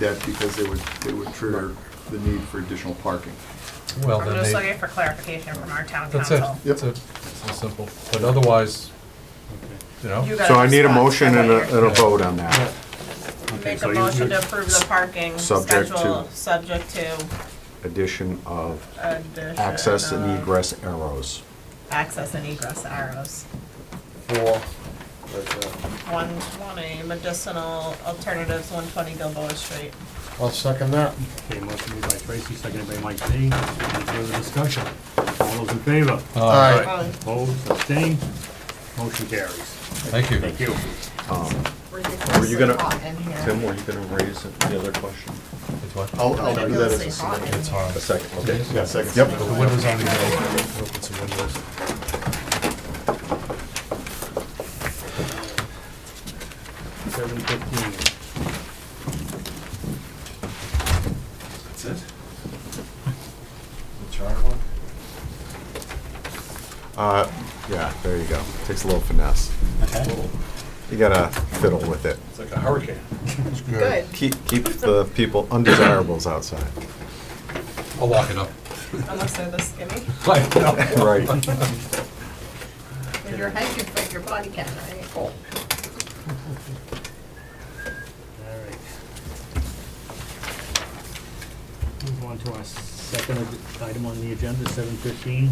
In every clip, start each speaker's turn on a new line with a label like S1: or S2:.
S1: that because they would, they would trigger the need for additional parking.
S2: Well,
S3: I'm
S2: then
S3: just
S2: they,
S3: looking for clarification from our town
S2: that's it,
S3: council.
S1: Yep.
S2: that's it, it's simple, but otherwise, you
S3: You
S2: know,
S3: got
S4: So I need a
S3: response to
S4: motion and a,
S3: what
S4: and a vote on that.
S3: you're- Make a motion to approve the parking
S4: Subject to-
S3: schedule, subject to uh,
S4: Addition of
S3: addition
S4: access and uh,
S3: of
S4: egress arrows.
S3: Access and egress arrows.
S5: Four. but, uh,
S3: One twenty medicinal alternatives, one twenty Gilboa Street.
S5: I'll second that.
S6: Okay, motion made by Tracy, seconded by Mike Z. Any further discussion? All those in favor?
S2: Aye.
S3: Aye.
S6: Opposed, abstained, motion carries.
S2: thank you.
S6: Thank you.
S4: Were you gonna-
S3: in
S4: Tim, were you gonna raise the other question?
S2: It's what-
S1: I'll,
S3: uh,
S1: I'll do that as a
S3: Ridiculously hot
S1: second.
S3: in here.
S2: hard.
S4: A second, okay.
S1: Yeah, second.
S4: Yep.
S2: The windows on the hill, open some windows.
S6: Seven fifteen.
S1: That's it?
S4: Uh, yeah, there you go. Takes a little finesse. You gotta fiddle with it.
S2: It's like a hurricane.
S3: Good.
S4: Keep, keep the people undesirables outside.
S2: I'll lock it up.
S3: Unless they're this skinny.
S2: Like, no.
S4: Right.
S3: With your head, you fit your body can, right?
S6: All right. Move on to our second ag- item on the agenda, seven fifteen.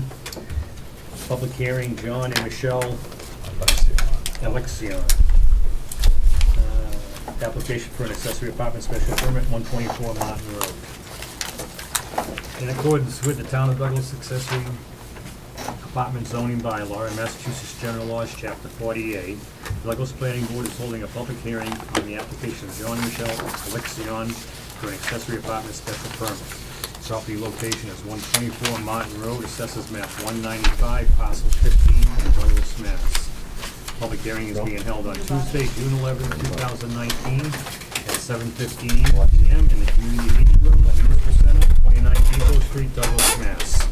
S6: Public hearing, John and Michelle Alexion. Uh, Application for an accessory apartment special permit, one twenty-four Martin Road. In accordance with the Town of Douglas accessory apartment zoning bylaw and Massachusetts General Laws, Chapter 48, the Douglas Planning Board is holding a public hearing on the application of John Michelle Alexion for an accessory apartment special permit. Property location is 124 Martin Road, assessors map 195, parcel 15, in Douglas, Mass. Public hearing is being held on Tuesday, June 11, 2019, at 7:15 PM in the Community Meeting Room at Municipal Center, 29 Depot Street, Douglas, Mass.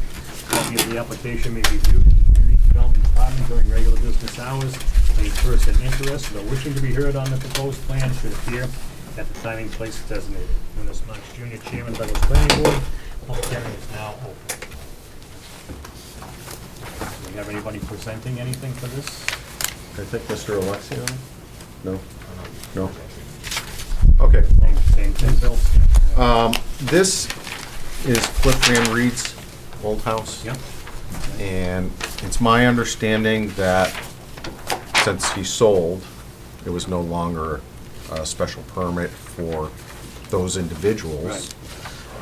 S6: Copy of the application may be viewed in the Community Development Department during regular business hours. Any person interested or wishing to be heard on the proposed plan should appear at the time and place designated. Dennis Knox Jr., Chairman, Douglas Planning Board, public hearing is now open. Do we have anybody presenting anything for this?
S4: I think Mr. Alexio? No? No? Okay.
S6: Same, same thing, Bill?
S4: Um, this is Cliff Van Reed's old house.
S6: Yep.
S4: And it's my understanding that since he sold, it was no longer a special permit for those individuals.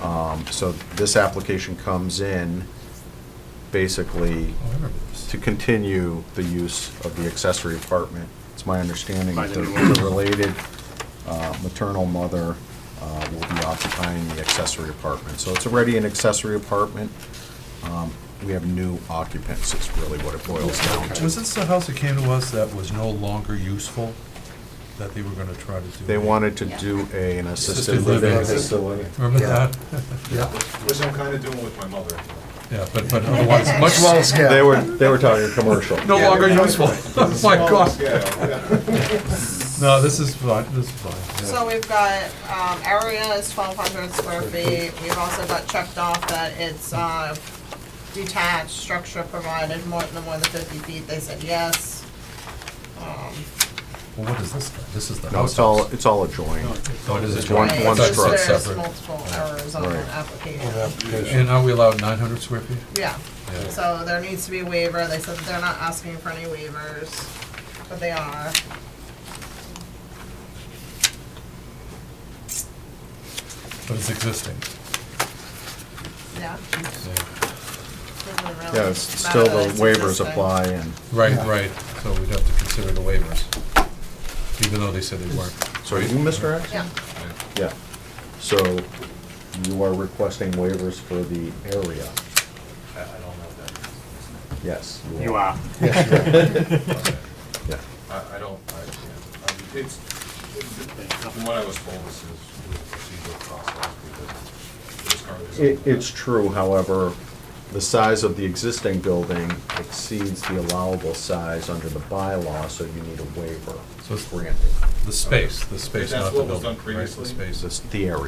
S4: Um, So this application comes in basically
S2: I remember this.
S4: to continue the use of the accessory apartment. It's my understanding
S6: By
S4: that
S6: the
S4: the
S6: new owner.
S4: the related uh, maternal mother uh, will be occupying the accessory apartment. So it's already an accessory apartment. Um, We have new occupants, is really what it boils down to.
S2: Was this the house that came to us that was no longer useful, that they were gonna try to do?
S4: They wanted to do a- an assisted
S2: Assisted
S4: living
S2: living.
S4: facility.
S2: Remember that?
S1: Which I'm kinda doing with my mother.
S2: Yeah, but, but otherwise, much less,
S4: They were, they were talking commercial.
S2: no longer useful. Oh My God,
S1: Yeah.
S2: no, this is fine, this is fine.
S3: So we've got, um, area is twelve hundred square feet, we've also got checked off that it's, uh, detached, structure provided, more, no more than fifty feet, they said yes.
S2: Well, what is this, then? this is the
S4: No,
S2: house.
S4: it's all, it's all adjoined.
S2: Oh, it is
S4: it's
S2: a
S4: one-
S2: joint-
S3: Right,
S4: one
S3: there's-
S4: structure.
S3: There's
S2: Separate.
S3: multiple errors on
S4: Right.
S3: that application,
S2: And are we allowed nine hundred square feet?
S3: yeah,
S2: Yeah.
S3: so there needs to be a waiver, they said that they're not asking for any waivers, but they are.
S2: But it's existing.
S3: Yeah. doesn't really
S4: Yeah, it's
S3: matter
S4: still
S3: that
S4: the
S3: it's
S4: waivers
S3: existing.
S4: apply and,
S2: Right, right, so we'd have to consider the waivers, even though they said they weren't.
S4: so are you Mr. X?
S3: Yeah,
S4: Yeah, so you are requesting waivers for the area?
S5: I don't know that.
S4: Yes.
S6: You are.
S4: Yeah.
S7: I, I don't, I can't, I mean, it's, from what I was told, this is the procedural process, because it's currently.
S4: It, it's true, however, the size of the existing building exceeds the allowable size under the bylaw, so you need a waiver
S2: So it's-
S4: granted.
S2: The space, the space,
S7: That's
S2: not the
S7: what was
S2: building.
S7: done
S2: right, the
S7: previously?
S2: space.
S4: This, the area.